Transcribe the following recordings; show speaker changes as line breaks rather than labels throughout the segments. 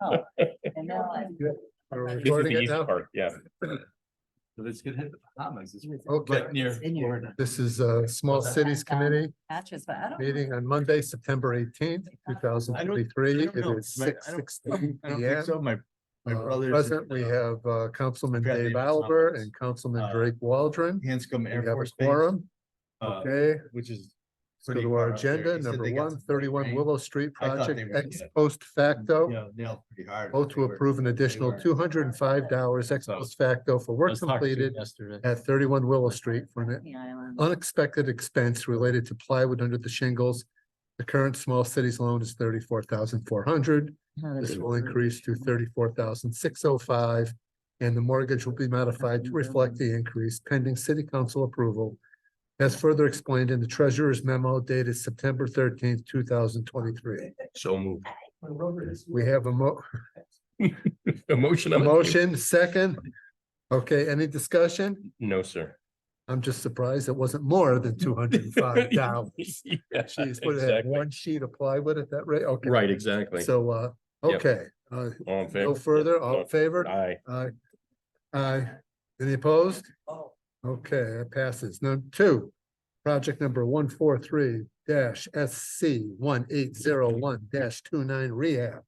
Oh, And now I.
Are
This
we
This is
recording
the
it
easy
now?
part, yeah.
Let's get hit the Bahamas. It's
Okay,
right near
It's in your-
Florida.
this is a Small Cities Committee
Patches, but I don't.
meeting on Monday, September eighteenth, two thousand
I
twenty-three.
don't
It
know.
is
My- I don't-
six sixteen
I don't
P
think
M. Uh,
so. My, my brother's.
Present, we have uh, Councilman
Forgot
Dave
David
Albert
Thomas.
and Councilman
Uh,
Drake Waldron.
Hanscom
We
Air
have a
Force Base,
quorum,
uh,
okay?
which is.
Let's go
pretty
to our
far out there.
agenda,
He said
number
they got
one,
some great
thirty-one
rain.
Willow Street
I thought they
Project,
were
ex
gonna-
post
You
facto.
know, Nailed pretty hard.
Vote to
They were-
approve an
they
additional
were-
two hundred and five dollars ex
So-
post facto for
I
work
was talking to him
completed
Yesterday.
at thirty-one Willow Street for an
The island.
unexpected expense related to plywood under the shingles. The current small cities loan is thirty-four thousand four hundred. This will increase to thirty-four thousand six oh five. And the mortgage will be modified to reflect the increase pending city council approval. As further explained in the treasurer's memo dated September thirteenth, two thousand twenty-three.
So moved.
We have a mo-
A motion.
a
on the table?
motion, second. Okay, any discussion?
No, sir.
I'm just surprised it wasn't more than two hundred and five dollars.
Yeah,
Uh, Jeez, would it have
exactly.
one sheet of plywood at that rate? Okay.
Right, exactly.
So, uh,
Yep.
okay, uh,
All in favor?
no further, all in
No.
favor?
Aye.
Aye. Aye. Any opposed? Okay, that passes. Number two, project number one four three dash S C one eight zero one dash two nine rehab.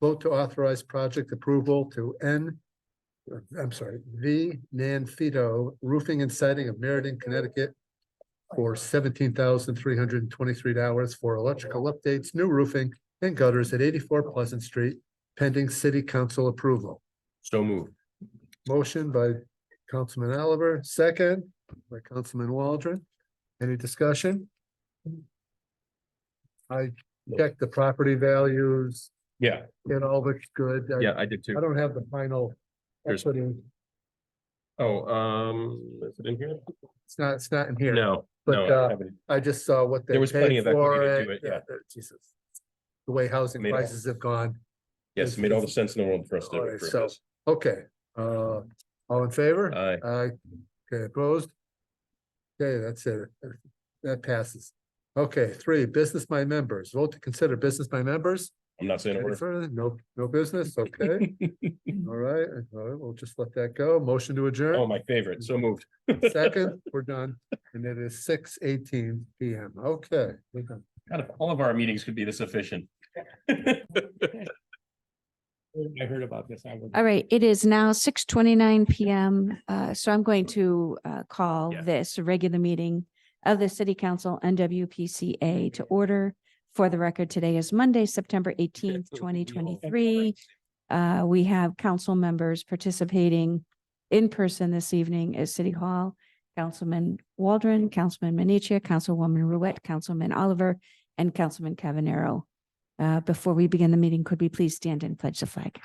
Vote to authorize project approval to N, I'm sorry, V Nanfito Roofing and Siding of Meriden, Connecticut for seventeen thousand three hundred and twenty-three dollars for electrical updates, new roofing and gutters at eighty-four Pleasant Street, pending city council approval.
So moved.
Motion by Councilman Oliver, second by Councilman Waldron. Any discussion? I checked the property values,
Yeah,
it all looks good. I-
yeah, I did
I
too.
don't have the final
There's-
equity.
Oh, um, is it in here?
It's not, it's not in here.
No,
But,
no,
uh,
I haven't.
I just saw what they
There was plenty
paid
of
for
equity to do
it.
it, yeah.
uh, Jesus. The way housing
Made all-
prices have gone.
yes, it made all the sense in the world for us to.
Alright,
approve
so-
this.
Okay, uh, all in favor?
Aye.
Aye. Okay, opposed? Okay, that's it. That passes. Okay, three, business by members. Vote to consider business by members.
I'm not saying a
Any
word.
further? No, no business, okay? All right, all right, we'll just let that go. Motion to
Oh,
adjourn.
my favorite. So moved.
Second, we're done. And it is six eighteen P M. Okay. we're done.
Out of all of our meetings could be this efficient. I heard about this. I was-
All right, it is now six twenty-nine PM, uh, so I'm going to, uh, call
Yeah.
this a regular meeting of the City Council NWPCA to order. For the record, today is Monday, September eighteenth, twenty twenty-three. Uh, we have council members participating in person this evening at City Hall. Councilman Waldron, Councilman Menichia, Councilwoman Ruette, Councilman Oliver, and Councilman Cavanero. Uh, before we begin the meeting, could we please stand and pledge the flag?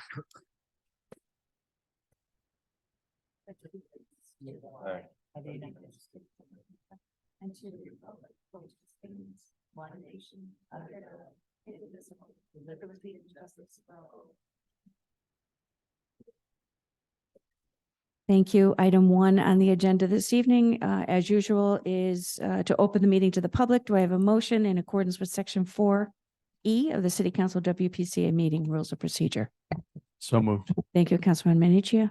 And to the republic for which it stands, one nation, under God, indivisible, with liberty and justice for all.
Thank you. Item one on the agenda this evening, uh, as usual, is, uh, to open the meeting to the public. Do I have a motion in accordance with section four E of the City Council WPCA meeting rules of procedure?
So moved.
Thank you, Councilman Minichia.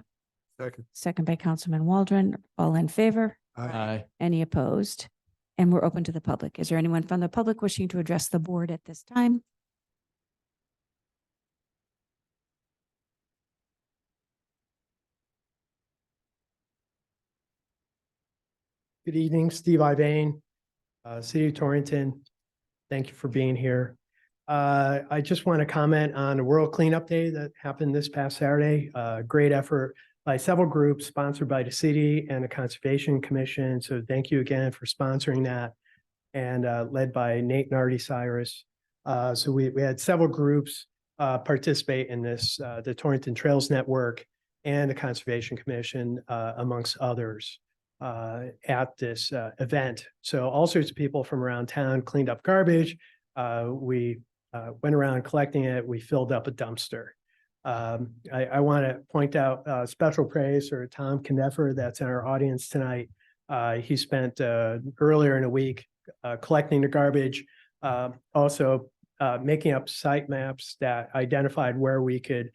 Second.
Second by Councilman Waldron. All in favor?
Aye.
Any opposed? And we're open to the public. Is there anyone from the public wishing to address the board at this time?
Good evening, Steve Ivane, uh, City of Torrington. Thank you for being here. Uh, I just want to comment on the World Cleanup Day that happened this past Saturday. Uh, great effort by several groups sponsored by the city and the Conservation Commission. So thank you again for sponsoring that and, uh, led by Nate Nardi Cyrus. Uh, so we, we had several groups, uh, participate in this, uh, the Torrington Trails Network and the Conservation Commission, uh, amongst others uh, at this uh, event. So all sorts of people from around town cleaned up garbage. Uh, we uh, went around collecting it. We filled up a dumpster. Um, I, I want to point out uh, special praise for Tom Kneffer that's in our audience tonight. Uh, he spent uh, earlier in the week uh, collecting the garbage, um, uh, also uh, making up site maps that identified where we could